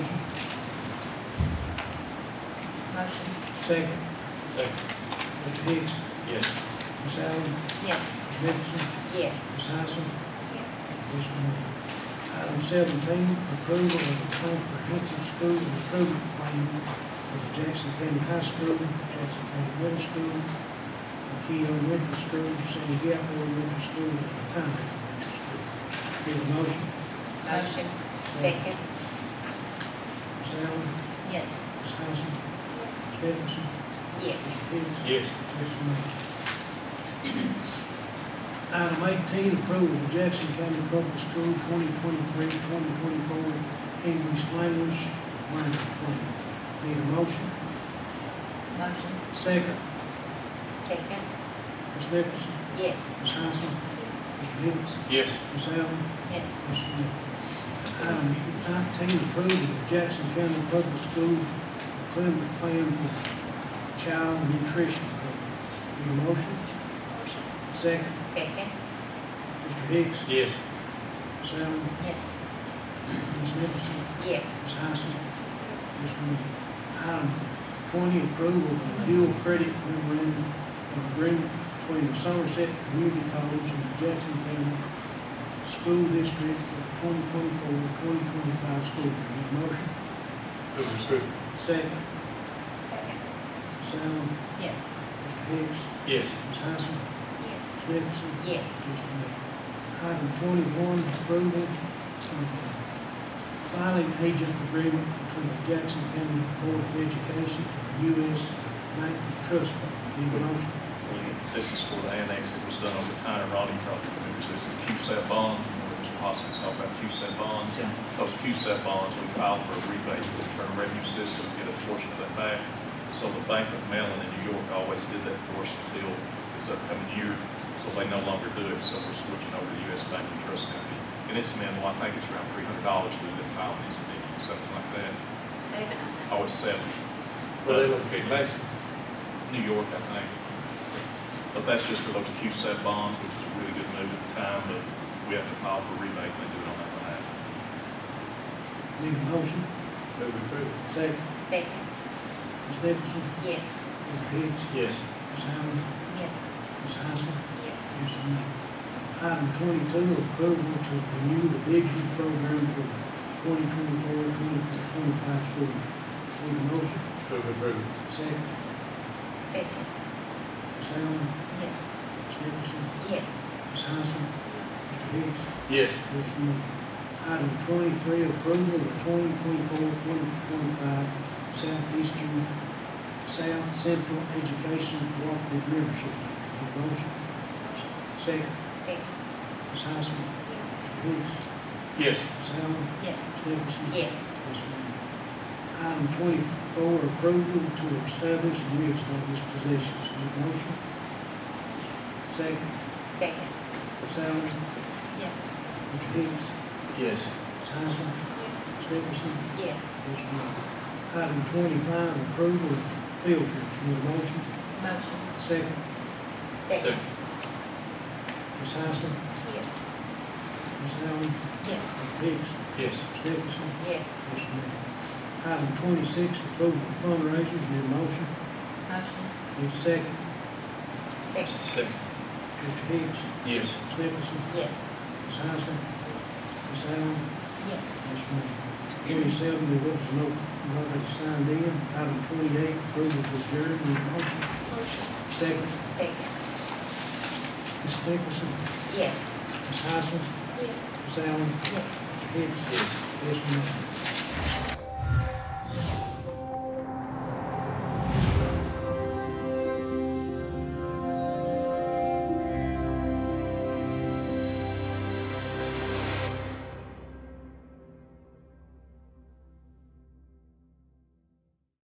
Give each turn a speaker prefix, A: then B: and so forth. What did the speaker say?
A: Motion.
B: Second,
C: Second.
B: Mr. Hicks,
C: Yes.
B: Ms. Allen,
A: Yes.
B: Ms. Nicholson,
A: Yes.
B: Ms. Hyson,
A: Yes.
B: Ms. Moore. Item seventeen, approval of the comprehensive school improvement plan for the Jackson County High School, Jackson County Middle School, McKee Elementary School, Sandy Gap Elementary School, and Tyne Elementary School. Need a motion?
A: Motion. Second.
B: Ms. Allen,
A: Yes.
B: Ms. Hyson, Ms. Nicholson,
A: Yes.
B: Ms. Hicks,
C: Yes.
B: Item eighteen, approval of Jackson County Public School 2023-2024 English language learning plan. Need a motion?
A: Motion.
B: Second,
A: Second.
B: Ms. Nicholson,
A: Yes.
B: Ms. Hyson, Mr. Hicks,
C: Yes.
B: Ms. Allen,
A: Yes.
B: Mr. Miller. Item nineteen, approval of Jackson County Public Schools Climate Plan for Child Nutrition Program. Need a motion?
A: Motion.
B: Second,
A: Second.
B: Mr. Hicks,
C: Yes.
B: Ms. Allen,
A: Yes.
B: Ms. Nicholson,
A: Yes.
B: Ms. Hyson, Ms. Miller. Item twenty, approval of dual credit memorandum of agreement between the Somerset Community College and the Jackson County School District for 2024-2025 school year. Need a motion?
C: Move approve.
B: Second,
A: Second.
B: Ms. Allen,
A: Yes.
B: Mr. Hicks,
C: Yes.
B: Ms. Hyson,
A: Yes.
B: Ms. Nicholson,
A: Yes.
B: Item twenty-one, approval of filing agent agreement between the Jackson County Board of Education and the U.S. Bank of Trust. Need a motion?
D: This is for the annex that was done over time, Ronnie probably remembers this, in QSEP bonds, you know, Mr. Hoskins talked about QSEP bonds.
C: Yeah.
D: Those QSEP bonds, we filed for a rebate, to the Internal Revenue System, get a portion of that back. So the Bank of Mellon in New York always did that for us until this upcoming year, so they no longer do it, so we're switching over to the U.S. Bank and Trust Company. And it's minimal, I think it's around three hundred dollars we did file these, maybe something like that,
A: Seven.
D: oh, it's seven.
C: Well, they look good, thanks.
D: New York, I think. But that's just for those QSET bonds, which is a really good move at the time, but we have to file for rebate, and they do it on that behalf.
B: Need a motion?
C: Move approve.
B: Second.
A: Second.
B: Ms. Nicholson,
A: Yes.
B: Mr. Hicks,
C: Yes.
B: Ms. Allen,
A: Yes.
B: Ms. Hyson,
A: Yes.
B: Yes, ma'am. Item twenty-two, approval to renew the Big U program for 2024-2025 school year. Need a motion?
C: Move approve.
B: Second,
A: Second.
B: Ms. Allen,
A: Yes.
B: Ms. Nicholson,
A: Yes.
B: Ms. Hyson, Mr. Hicks,
C: Yes.
B: Ms. Moore. Item twenty-three, approval of 2024-2025 Southeastern, South Central Education Cooperative Membership. Act. Need a motion? Second,
A: Second.
B: Ms. Hyson, Mr. Hicks,
A: Yes.
C: Yes.
B: Ms. Allen,
A: Yes.
B: Ms. Nicholson.
A: Yes.
B: Yes, ma'am. Item twenty-four, approval to establish and reestablish positions. Need a motion? Second,
A: Second.
B: Ms. Allen,
A: Yes.
B: Mr. Hicks,
C: Yes.
B: Ms. Hyson, Ms. Nicholson.
A: Yes.
B: Yes, ma'am. Item twenty-five, approval of field trips. Need a motion?
A: Motion.
B: Second,
A: Second.
B: Ms. Hyson,
A: Yes.
B: Ms. Allen,
A: Yes.
B: Mr. Hicks,
C: Yes.
B: Ms. Nicholson.
A: Yes.
B: Yes, ma'am. Item twenty-six, approval of fundraisers. Need a motion?
A: Motion.
B: Need a second,
A: Second.
C: Second.
B: Mr. Hicks,
C: Yes.
B: Ms. Nicholson.
A: Yes.
B: Ms. Hyson, Ms. Allen,
A: Yes.
B: Yes, ma'am. Twenty-seven, there was no, nobody signed in. Item twenty-eight, approval of adjourned, need a motion.
A: Motion.
B: Second,
A: Second.
B: Ms. Nicholson,
A: Yes.
B: Ms. Hyson,
A: Yes.
B: Ms. Allen,
A: Yes.
B: Ms. Hicks. Yes, ma'am.